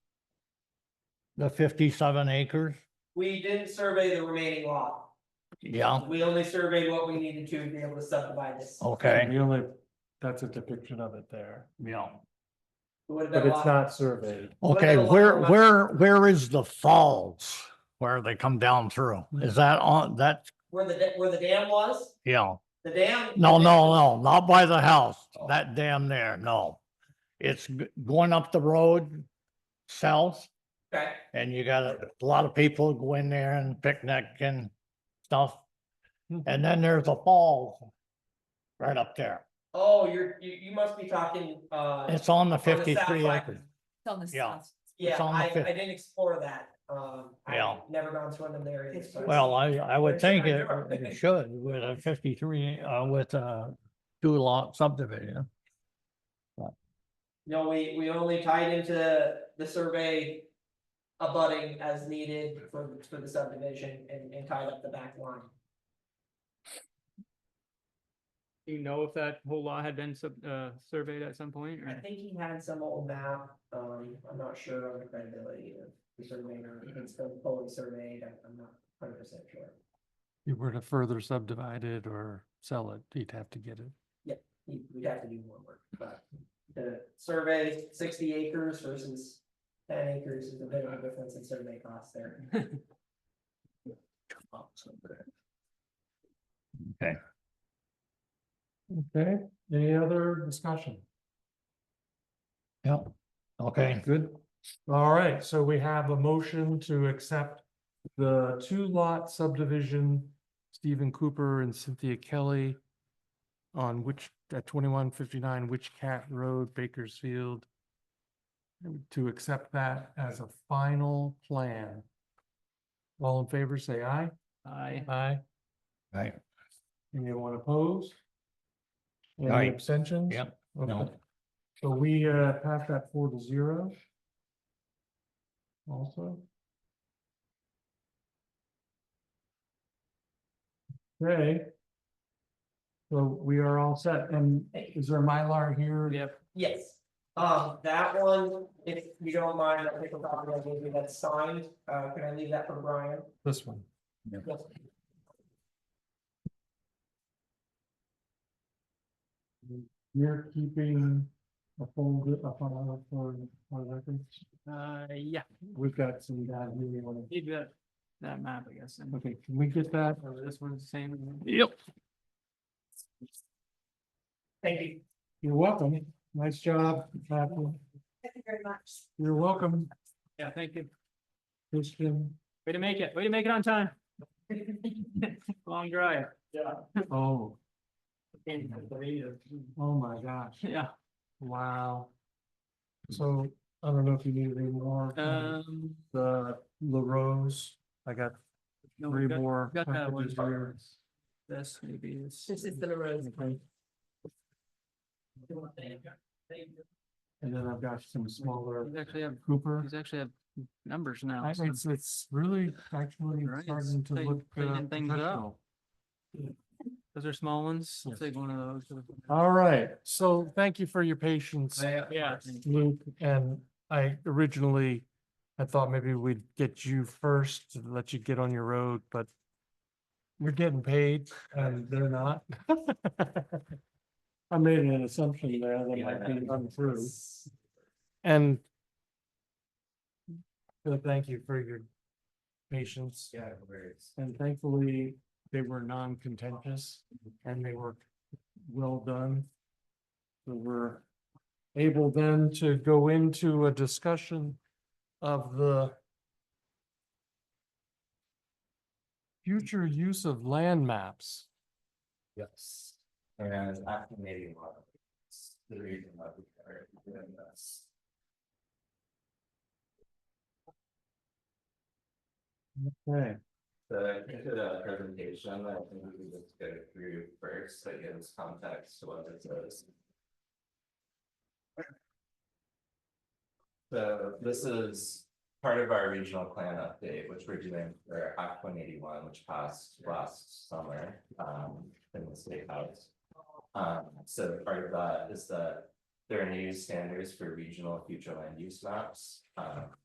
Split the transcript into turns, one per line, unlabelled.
the fifty-seven acres?
We didn't survey the remaining lot.
Yeah,
We only surveyed what we needed to be able to subdivide this.
okay,
We only, that's a depiction of it there,
yeah.
It would have been
but
a
it's
lot-
not surveyed.
Okay,
the lot
where,
line-
where, where is the falls? Where they come down through? Is that on, that,
Where the, da- where the dam was,
yeah, Oh.
the dam.
no, no, no, not by the house, that dam there, no. It's g- going up the road south
Okay,
and you got a lot of people go in there and picnic and stuff. And then there's a fall right up there.
oh, you're, you, you must be talking, uh,
It's on the
south
fifty-three
side.
acres.
It's on the
Yeah.
south.
yeah,
on the
I,
fifth.
I didn't explore that, um, I've
Yeah.
never gone to one of them areas. so-
Well, I, I would
There's
think
your
it
door.
it should with a fifty-three, uh, with a two lot subdivision.
No, we, we only tied into the survey abutting as needed for, for the subdivision and, and tied up the back line.
Do you know if that whole lot had been sub, uh, surveyed at some point
I
or?
think he had some old map, um, I'm not sure on the credibility of the surveyor, if it's been fully surveyed, I'm- I'm not hundred percent sure.
You were to further subdivide it or sell it, you'd have to get it.
He- We'd have to do more work, but the survey, sixty acres versus ten acres is a bit of a difference in survey costs there.
Okay, any other discussion?
Yeah, okay,
Good. All right, so we have a motion to accept the two lot subdivision, Stephen Cooper and Cynthia Kelly on which, at twenty-one fifty-nine Witch Cat Road, Bakersfield, to accept that as a final plan. All in favor, say aye.
I,
Aye.
right,
Anyone opposed? Any
Aye.
abstentions?
Yep,
Okay.
no.
So we uh passed that four to zero. Also. Okay. So we are all set, and is there a Mylar here?
yep,
Yes, um, that one, if you don't mind, I think I'll probably give you that signed, uh, can I leave that for Brian?
This one. You're keeping a folder, a file for, for records.
uh, yeah,
We've got some guys who we want
leave that, that map, I guess.
to,
and-
okay, can we get that?
Or this one's the same.
Yep.
Thank you.
You're welcome. Nice job. Catherine.
Thank you very much.
You're welcome,
Yeah, thank you.
Christian.
Way to make it, way to make it on time. Long drive. Yeah.
Oh,
Yeah.
oh my gosh. Wow. So I don't know if you need any more. from
Um.
The LaRose, I got
no,
three
got-
more.
Got that one.
packages here.
This maybe is.
This is the LaRose.
Okay. And then I've got some smaller
These actually have,
Cooper.
these actually have numbers
I-
now. so-
It's, it's really actually
Right,
starting to
tight-
look. uh,
tightening things up.
professional.
Those are small ones. I'll
Yes.
take one of those.
All right, so thank you for your patience.
Yeah.
Luke, and I originally, I thought maybe we'd get you first, to let you get on your road, but you're getting paid and they're not. I made an assumption there that might be untrue. And so thank you for your patience. Yeah, And thankfully, they were non-contentious and they were well done. So we're able then to go into a discussion of the future use of land maps.
Yes, and after maybe a lot of it's the reason that we are doing this.
Okay.
The, I did a presentation, I think we could just go through first, that gives context to what this is. So this is part of our regional plan update, which we're doing for Act one eighty-one, which passed last summer, um, in the state house. Um, so part of that is that there are new standards for regional future land use maps, um,